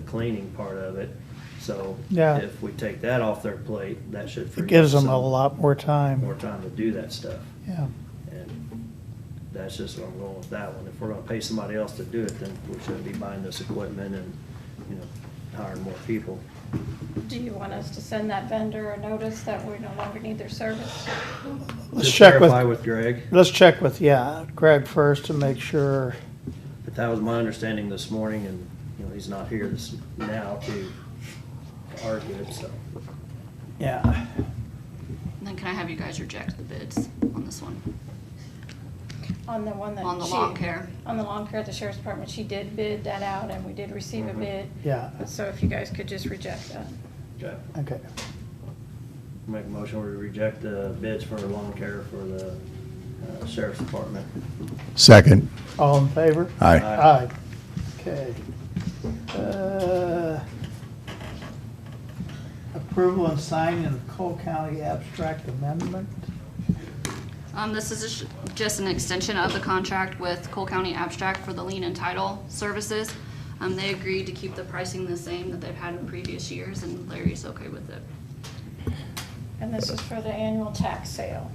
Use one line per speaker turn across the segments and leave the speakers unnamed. cleaning part of it. So
Yeah.
if we take that off their plate, that should free
It
up
gives them
some
a lot more
more
time.
time to do that stuff.
Yeah,
And that's just where I'm going with that one. If we're gonna pay somebody else to do it, then we shouldn't be buying this equipment and, you know, hiring more people.
Do you want us to send that vendor a notice that we no longer need their service?
let's
Just
check with,
Verify with Greg,
let's check with, yeah, Greg first to make sure.
but that was my understanding this morning and, you know, he's not here this, now to argue it, so.
Yeah,
Then can I have you guys reject the bids on this one?
On the one that she.
On the lawn care?
On the lawn care at the sheriff's department, she did bid that out and we did receive a
Mhm.
bid.
Mm-hmm. yeah,
So if you guys could just reject that.
Okay.
okay.
Make a motion to reject the bids for lawn care for the uh, sheriff's department.
Second.
All in favor?
Aye.
Aye.
Aye. Okay. Uh, Approval and signing of Cole County Abstract Amendment.
Um, this is just- just an extension of the contract with Cole County Abstract for the lien and title services. Um, they agreed to keep the pricing the same that they've had in previous years, and Larry's okay with it.
And this is for the annual tax sale,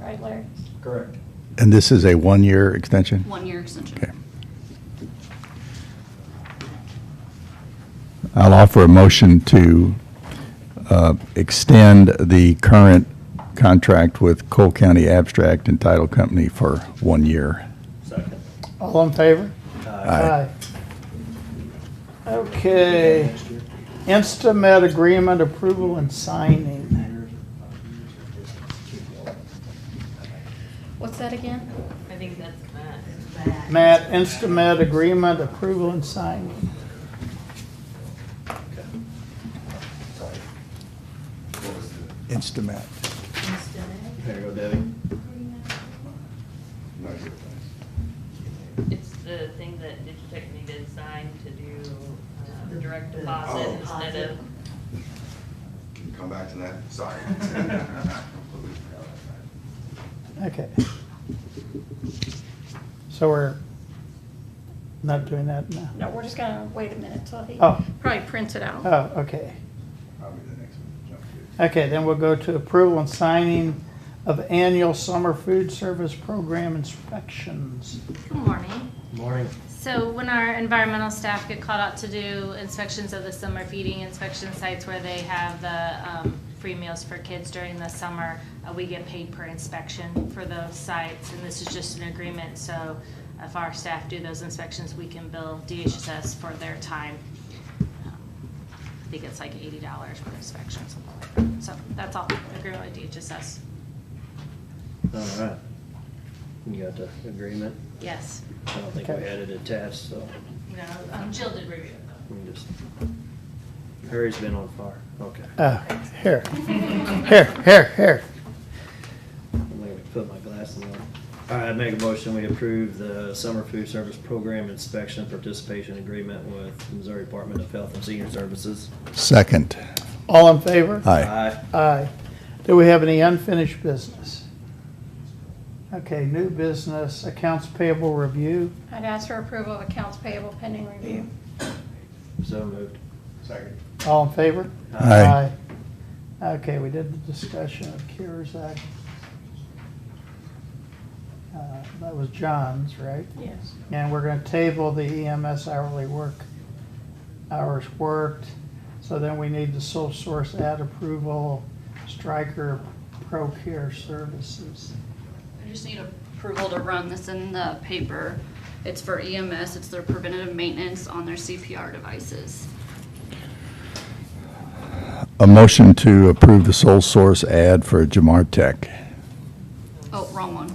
right Larry?
Correct.
And this is a one-year extension?
One-year extension.
Okay. I'll offer a motion to uh, extend the current contract with Cole County Abstract and Title Company for one year.
Second.
All in favor?
Uh,
Aye.
Okay. Instamet agreement approval and signing.
What's that again?
I think that's
Matt, Instamet agreement approval and signing.
Instamat.
There you go, Debbie.
It's the thing that Digitech needed signed to do um, direct deposit
Oh.
instead of,
Can you come back to that? Sorry.
Okay. So we're not doing that now?
No, we're just gonna wait a minute till he
Oh.
probably prints it out.
Oh, okay.
Probably the next one. Jump to
Okay, then we'll go to approval and signing of annual summer food service program inspections.
Good morning.
Morning.
So when our environmental staff get called out to do inspections of the summer feeding inspection sites where they have the um, free meals for kids during the summer, uh, we get paid per inspection for those sites. And this is just an agreement, so if our staff do those inspections, we can bill DHSS for their time. Um, I think it's like eighty dollars per inspection, something like that. So that's all, agreement with DHSS.
All right. You got the agreement?
Yes.
I don't think we
Okay.
had it attached, so
You know, um, Jill did review it though.
we can just, Harry's been on fire. Okay.
Uh, here, here, here, here.
I'm gonna put my glasses on. All right, I make a motion, we approve the summer food service program inspection and participation agreement with Missouri Department of Health and Senior Services.
Second.
All in favor?
Aye.
Aye. Do we have any unfinished business? Okay, new business, accounts payable review.
I'd ask for approval of accounts payable pending review.
So moved.
it. Second.
All in favor?
Aye.
Aye. Okay, we did the discussion of CARES Act. Uh, That was John's, right?
Yes.
And we're gonna table the EMS hourly work, hours worked. So then we need the sole source ad approval, striker pro care services.
I just need approval to run this in the paper. It's for EMS, it's their preventative maintenance on their CPR devices.
A motion to approve the sole source ad for Jamar Tech.
Oh, wrong one,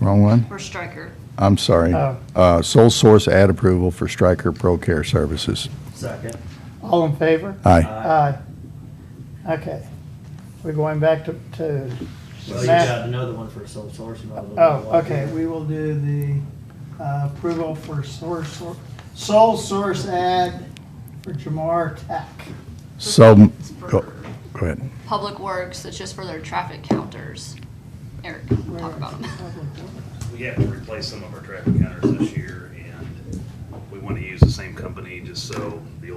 Wrong one?
for Stryker.
I'm sorry.
Oh.
Uh, Sole source ad approval for Stryker Pro Care Services.
Second.
All in favor?
Aye.
Aye. Okay. We're going back to, to
Well, you got
Matt.
another one for sole source. you might as well
Oh,
do one.
okay, we will do the uh, approval for source, sole source ad for Jamar Tech.
So,
It's
go
for
go ahead.
Public Works, it's just for their traffic counters. Eric, can talk about them.
We have to replace some of our traffic counters this year, and we want to use the same company just so the